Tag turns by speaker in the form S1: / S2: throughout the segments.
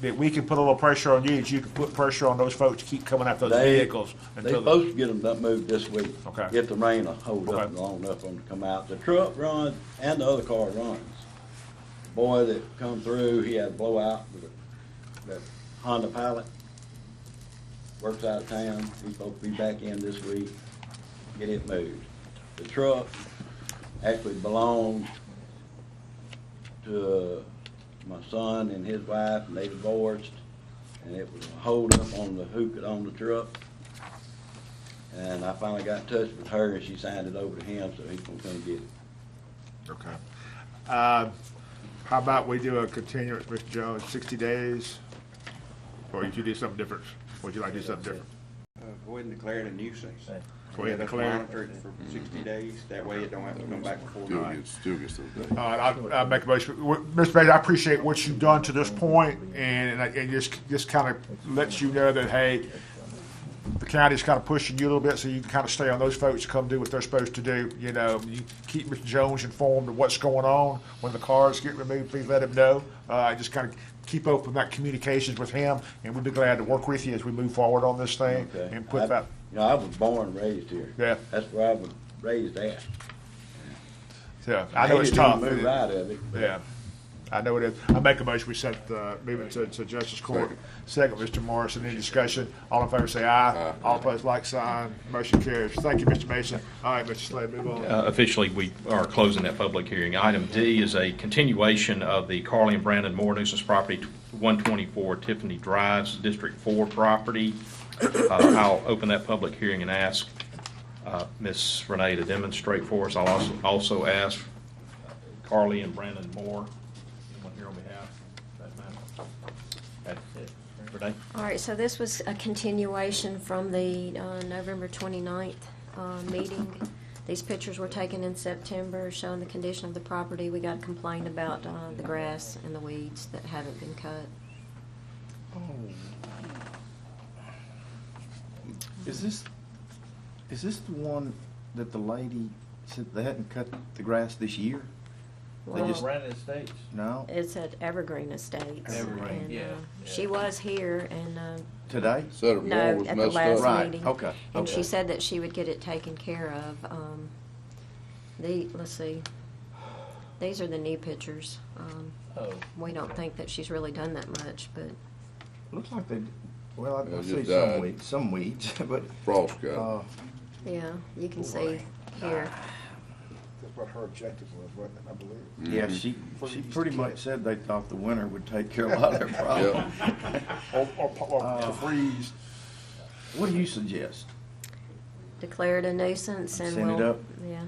S1: that we can put a little pressure on you, that you can put pressure on those folks to keep coming out those
S2: They-
S1: vehicles.
S2: They
S1: until the-
S2: supposed to get them done- moved this week.
S1: Okay.
S2: If the rain will hold up
S1: Okay.
S2: long enough for them to come out. The truck runs and the other car runs. Boy that come through, he had a blowout with a- that Honda pilot. Works out of town. He's supposed to be back in this week. Get it moved. The truck actually belongs to my son and his wife, and they divorced, and it was a holdup on the who could own the truck. And I finally got in touch with her, and she signed it over to him, so he's gonna come get it.
S1: Okay. Uh, How about we do a continuance, Mr. Jones, 60 days? Or would you do something different? Would you like to do something different?
S3: Uh, Go ahead and declare it a nuisance.
S1: Go ahead and
S3: Let us
S1: declare it.
S3: Monitor it for sixty days, that way it don't have to come back before
S4: Still
S3: night.
S4: gets, still gets those
S1: All
S4: days.
S1: right, I'll, I'll Uh, make a motion. W- Mr. Bailey, I appreciate what you've done to this point, and, and I- and just, just kind of lets you know that, hey, the county's kind of pushing you a little bit, so you can kind of stay on those folks, to come do what they're supposed to do, you know. You keep Mr. Jones informed of what's going on. When the cars get removed, please let him know. Uh, just kind of keep open that communications with him, and we'd be glad to work with you as we move forward on this thing
S2: Okay.
S1: and put
S2: I-
S1: that,
S2: You know, I was born and raised here.
S1: Yeah.
S2: That's where I was raised at.
S1: yeah, I know it's
S2: hated to
S1: tough.
S2: Move out of it. but
S1: Yeah, I know it is. I make a motion, we sent, uh, move it to, to Justice Court. Second, Mr. Morrison, any discussion? All in favor say aye. All opposed, like sign. Motion carries. Thank you, Mr. Mason. All right, Mr. Slade, move on.
S5: Uh, Officially, we are closing that public hearing. Item D is a continuation of the Carly and Brandon Moore nuisance property, 124 Tiffany Drives, District 4 property. Uh, I'll open that public hearing and ask uh, Ms. Renee to demonstrate for us. I'll also also ask uh, Carly and Brandon Moore, anyone here on behalf of that matter? That's it. Renee?
S6: All right, so this was a continuation from the uh, November 29th uh, meeting. These pictures were taken in September showing the condition of the property. We got complained about uh, the grass and the weeds that haven't been cut.
S7: Oh. Is this, is this the one that the lady said they hadn't cut the grass this year? They just,
S8: Brandon Estates.
S7: no,
S6: It's at Evergreen Estates.
S8: Evergreen,
S6: and, uh,
S8: yeah,
S6: She was here and, uh,
S7: today?
S4: Said her wall
S6: no,
S4: was
S6: at the
S4: messed
S6: last
S4: up.
S7: Right,
S6: meeting.
S7: okay,
S6: And she
S7: okay.
S6: said that she would get it taken care of. Um, The, let's see, these are the new pictures. Um,
S8: Oh,
S6: We don't think that she's really done that much, but
S7: Looks like they, well,
S4: Yeah,
S7: I- I
S4: it
S7: see
S4: just
S7: some
S4: died.
S7: weeds, some weeds, but,
S4: Frost cut.
S7: uh,
S6: yeah, you can see
S7: Boy.
S6: here.
S1: That's what her objective was, wasn't it, I believe?
S7: yeah, she, she pretty much said they thought the winter would take care of a lot of their problem.
S1: Or, or, or
S5: Uh,
S1: to freeze.
S7: What do you suggest?
S6: Declared a nuisance and
S7: Send it
S6: we'll.
S7: up.
S6: Yeah,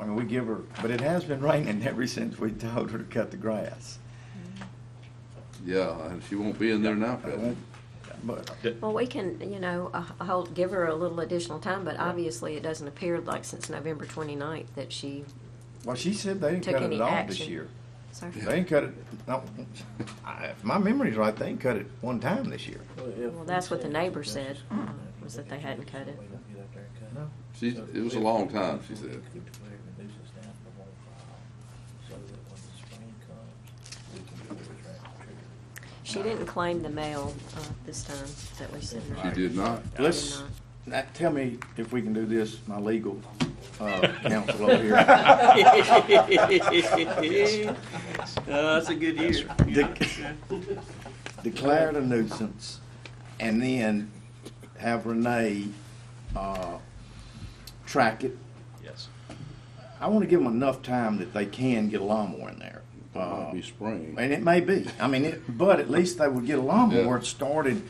S7: I mean, we give her, but it has been raining ever since we told her to cut the grass.
S4: Yeah, and she won't be in there now,
S7: I
S4: Pat.
S7: won't- But,
S6: well, we can, you know, uh, hold, give her a little additional time, but obviously it doesn't appear like since November 29th that she,
S7: well, she said they didn't
S6: Took
S7: cut it
S6: any
S7: at all this
S6: action.
S7: year.
S6: so.
S7: They didn't cut it, no, I- if my memory's right, they didn't cut it one time this year.
S6: Well, that's what the neighbor said, uh, was that they hadn't cut it.
S4: She, it was a long time, she said.
S6: She didn't claim the mail uh, this time that we sent her.
S4: She did not.
S6: She did
S7: Let's,
S6: not.
S7: now, tell me if we can do this, my legal uh, counsel over here.
S8: Oh, that's a good year.
S7: De- Declare it a nuisance and then have Renee uh, track it.
S5: Yes.
S7: I want to give them enough time that they can get a lawnmower in there. Uh,
S4: Might be spring.
S7: And it may be. I mean, it, but at least they would get a lawnmower
S4: Yeah.
S7: started.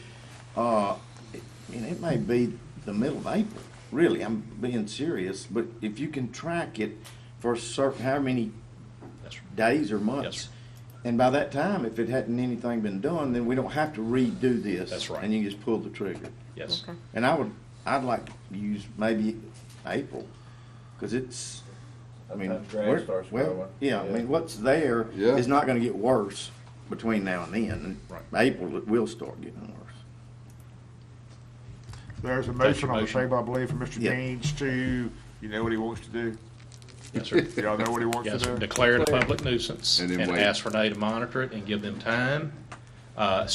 S7: Uh, it- I mean, it may be the middle of April. Really, I'm being serious. But if you can track it for certain, how many
S5: Yes, sir.
S7: days or months,
S5: sir.
S7: and by that time, if it hadn't anything been done, then we don't have to redo this.
S5: That's right.
S7: And you just pull the trigger.
S5: Yes.
S6: Okay.
S7: And I would, I'd like to use maybe April, because it's, I mean,
S8: Sometimes grass
S7: we're-
S8: starts growing.
S7: well, yeah, I mean, what's there
S4: Yeah.
S7: is not gonna get worse between now and then. And April, it will start getting worse.
S1: There's a
S5: That's
S1: motion
S5: your
S1: on the
S5: motion.
S1: table, I believe, from Mr.
S7: Yeah.
S1: Gaines to, you know what he wants to do?
S5: Yes, sir.
S1: Y'all know what he wants to
S5: Yes,
S1: do?
S5: declare it a public nuisance
S4: And
S5: and
S4: then wait.
S5: ask Renee to monitor it and give them time. Uh,